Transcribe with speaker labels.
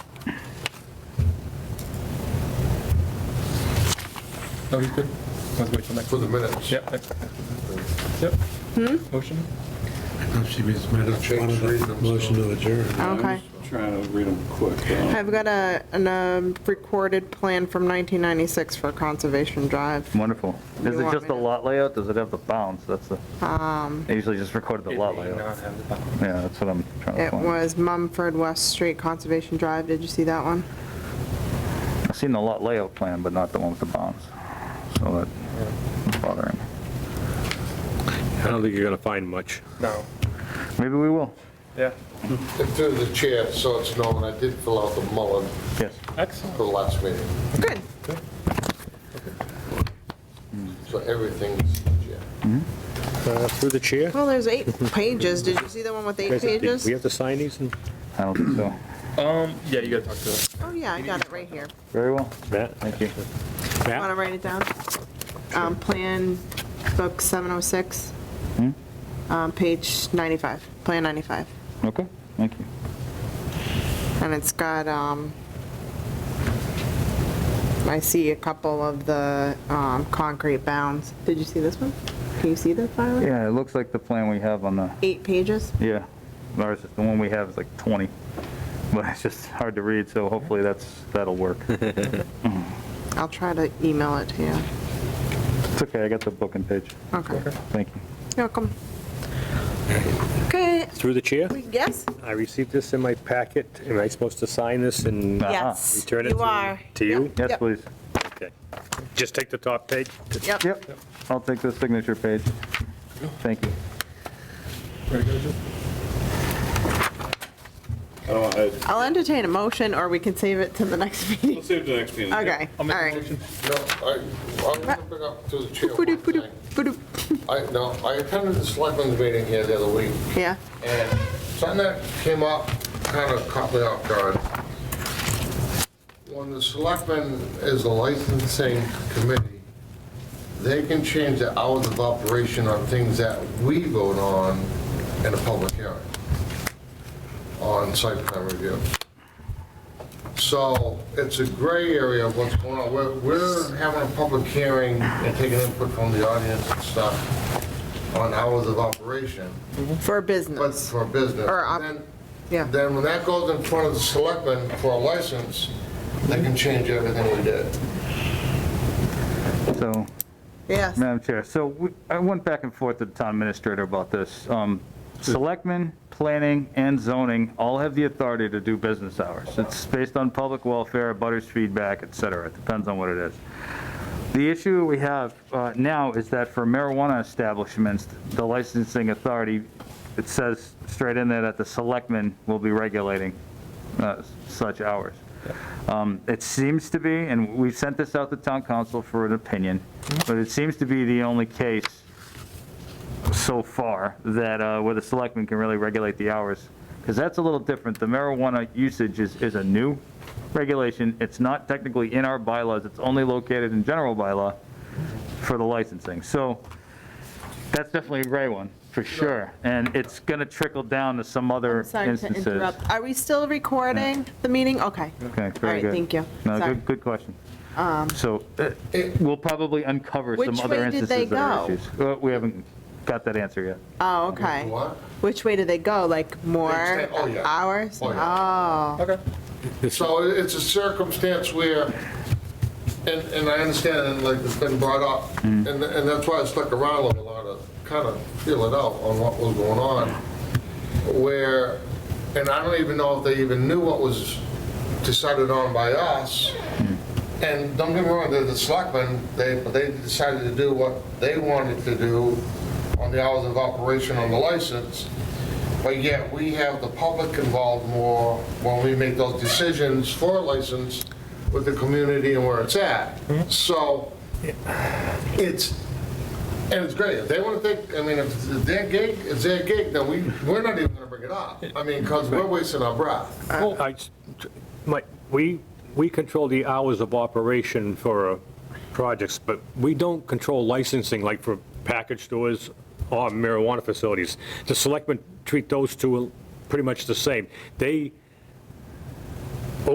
Speaker 1: No, he's good. Let's wait till next.
Speaker 2: for the minutes.
Speaker 1: Yep. next- Yep. Motion?
Speaker 3: She means minutes.
Speaker 2: Change three of them.
Speaker 3: Motion to adjourn.
Speaker 4: Okay.
Speaker 5: Trying to read them quick.
Speaker 4: I've got a, an, um, recorded plan from 1996 for Conservation Drive.
Speaker 6: Wonderful. Is
Speaker 4: You
Speaker 6: it
Speaker 4: want
Speaker 6: just
Speaker 4: me
Speaker 6: the
Speaker 4: to- Um.
Speaker 6: lot layout? Does it have the bounds? That's the, I usually just recorded the lot layout. Yeah, that's what I'm trying to
Speaker 4: It
Speaker 6: find.
Speaker 4: was Mumford West Street Conservation Drive. Did you see that one?
Speaker 6: I've seen the lot layout plan, but not the one with the bounds. So that's bothering. me.
Speaker 7: I don't think you're going to find much.
Speaker 1: No.
Speaker 6: Maybe we will.
Speaker 1: Yeah.
Speaker 2: And through the chair, so it's known, I did fill out the Mullen
Speaker 6: Yes.
Speaker 1: Excellent.
Speaker 2: for the last meeting.
Speaker 4: Good.
Speaker 2: So everything's, yeah.
Speaker 7: Uh, Through the chair?
Speaker 4: Well, there's eight pages. Did you see the one with eight
Speaker 7: Guys,
Speaker 4: pages?
Speaker 7: We have to sign these and
Speaker 6: I don't think so.
Speaker 1: Um, yeah, you gotta talk to them.
Speaker 4: Oh, yeah, I got it right here.
Speaker 6: Very well.
Speaker 7: Matt?
Speaker 6: Thank you.
Speaker 4: Want to
Speaker 7: Matt?
Speaker 4: write it down? Um, Plan Book 706,
Speaker 6: Hmm?
Speaker 4: um, page 95, Plan 95.
Speaker 6: Okay, thank you.
Speaker 4: And it's got, um, I see a couple of the um, concrete bounds. Did you see this one? Can you see the file?
Speaker 6: Yeah, it looks like the plan we have on the,
Speaker 4: Eight pages?
Speaker 6: yeah, ours, is- the one we have is like 20, but it's just hard to read, so hopefully that's, that'll work.
Speaker 4: I'll try to email it to you.
Speaker 6: It's okay, I got the book and page.
Speaker 4: Okay.
Speaker 6: Thank you.
Speaker 4: You're welcome. Okay,
Speaker 7: Through the chair?
Speaker 4: we guess?
Speaker 7: I received this in my packet. Am I supposed to sign this and
Speaker 6: Uh-huh.
Speaker 4: Yes,
Speaker 7: return it
Speaker 4: you
Speaker 7: to
Speaker 4: are.
Speaker 7: to you?
Speaker 6: Yes,
Speaker 4: Yep.
Speaker 6: please.
Speaker 7: Okay. Just take the top page.
Speaker 4: Yep.
Speaker 6: Yep, I'll take the signature page. Thank you.
Speaker 1: Ready to go, Jim?
Speaker 5: I don't, Oh, I,
Speaker 4: I'll entertain a motion, or we can save it to the next meeting.
Speaker 5: let's save the next meeting.
Speaker 4: Okay, all
Speaker 1: make a
Speaker 4: right.
Speaker 1: motion.
Speaker 2: No, I, I'm gonna bring up through the chair one
Speaker 4: Ba-doop, ba-doop,
Speaker 2: thing.
Speaker 4: ba-doop.
Speaker 2: I, no, I attended the selectmen's meeting here the other week,
Speaker 4: Yeah,
Speaker 2: and something that came up kind of caught me off guard. When the selectmen is a licensing committee, they can change the hours of operation on things that we vote on in a public hearing on site plan review. So it's a gray area of what's going on. We're, we're having a public hearing and taking input from the audience and stuff on hours of operation.
Speaker 4: for
Speaker 2: But
Speaker 4: business,
Speaker 2: for business.
Speaker 4: Or op-
Speaker 2: Then-
Speaker 4: yeah.
Speaker 2: Then when that goes in front of the selectmen for a license, they can change everything we did.
Speaker 6: So,
Speaker 4: Yes,
Speaker 6: Madam Chair, so we- I went back and forth with the town administrator about this. Um, Selectmen, planning, and zoning all have the authority to do business hours. It's based on public welfare, butters feedback, et cetera. It depends on what it is. The issue we have uh, now is that for marijuana establishments, the licensing authority, it says straight in there that the selectmen will be regulating uh, such hours. Um, It seems to be, and we've sent this out to town council for an opinion, but it seems to be the only case so far that, uh, where the selectmen can really regulate the hours, because that's a little different. The marijuana usage is, is a new regulation. It's not technically in our bylaws, it's only located in general bylaw for the licensing. So that's definitely a gray one, for sure. And it's going to trickle down to some other
Speaker 4: sorry to
Speaker 6: instances.
Speaker 4: interrupt. Are we still recording the meeting? Okay.
Speaker 6: Okay, very
Speaker 4: right,
Speaker 6: good.
Speaker 4: thank you.
Speaker 6: No,
Speaker 4: Sorry. Um,
Speaker 6: good, good question. So uh, we'll probably uncover
Speaker 4: Which
Speaker 6: some other
Speaker 4: way did they
Speaker 6: instances that are
Speaker 4: go?
Speaker 6: issues. Uh, We haven't got that answer yet.
Speaker 4: Oh, okay.
Speaker 2: What?
Speaker 4: Which way do they go? Like more
Speaker 2: They stay- oh, yeah.
Speaker 4: hours?
Speaker 2: Oh, yeah.
Speaker 4: Oh.
Speaker 2: So it- it's a circumstance where, and, and I understand, and like it's been brought up, and, and that's why I stuck around a little while to kind of feel it out on what was going on, where, and I don't even know if they even knew what was decided on by us. And don't get me wrong, they're the selectmen, they, but they decided to do what they wanted to do on the hours of operation on the license. But yet, we have the public involved more when we make those decisions for a license with the community and where it's at. So it's, and it's great. If they want to think, I mean, if it's their gig, it's their gig, then we, we're not even going to bring it up. I mean, because we're wasting our breath.
Speaker 7: I s- my- We, we control the hours of operation for uh, projects, but we don't control licensing like for package stores or marijuana facilities. The selectmen treat those two pretty much the same. They